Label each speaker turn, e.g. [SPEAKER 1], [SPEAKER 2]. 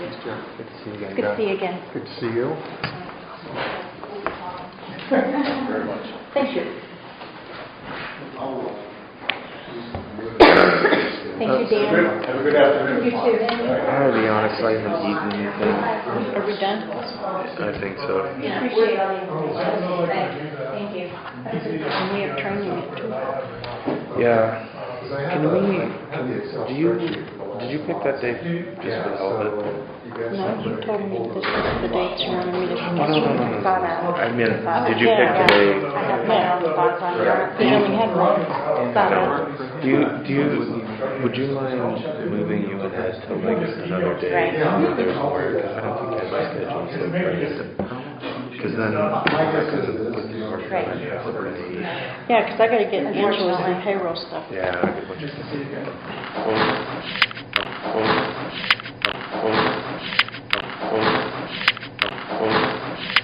[SPEAKER 1] Good to see you again,
[SPEAKER 2] Good to
[SPEAKER 1] guys.
[SPEAKER 2] see you again.
[SPEAKER 1] Good to see you.
[SPEAKER 3] Very much.
[SPEAKER 2] Thank you. Thank
[SPEAKER 1] Uh,
[SPEAKER 2] you, Dan.
[SPEAKER 3] Have a good afternoon.
[SPEAKER 2] You too.
[SPEAKER 1] I'll be honest, I haven't eaten anything.
[SPEAKER 2] Are we done?
[SPEAKER 1] I think so.
[SPEAKER 2] We Appreciate all the information. Thanks. Thank you. And we have training at two.
[SPEAKER 1] Yeah. Can we, can, do you, did you pick that day just for the hell of it?
[SPEAKER 3] uh,
[SPEAKER 2] No, you told me this was the dates you wanted me to
[SPEAKER 1] no, no, no, no.
[SPEAKER 2] schedule. Thought out.
[SPEAKER 1] I mean,
[SPEAKER 2] Thought
[SPEAKER 1] did you
[SPEAKER 2] out.
[SPEAKER 1] pick
[SPEAKER 2] Yeah,
[SPEAKER 1] today?
[SPEAKER 2] yeah. I have my own thoughts on it. We only had one. Thought out.
[SPEAKER 1] Do you, do you, would you mind moving you ahead to like another day?
[SPEAKER 2] Right.
[SPEAKER 1] There's work, I don't think I have my schedule so crazy. Cause then, because of the work, I have to really-
[SPEAKER 2] Yeah, because I got to get Angela's and payroll stuff.
[SPEAKER 1] Yeah. I get what you're saying.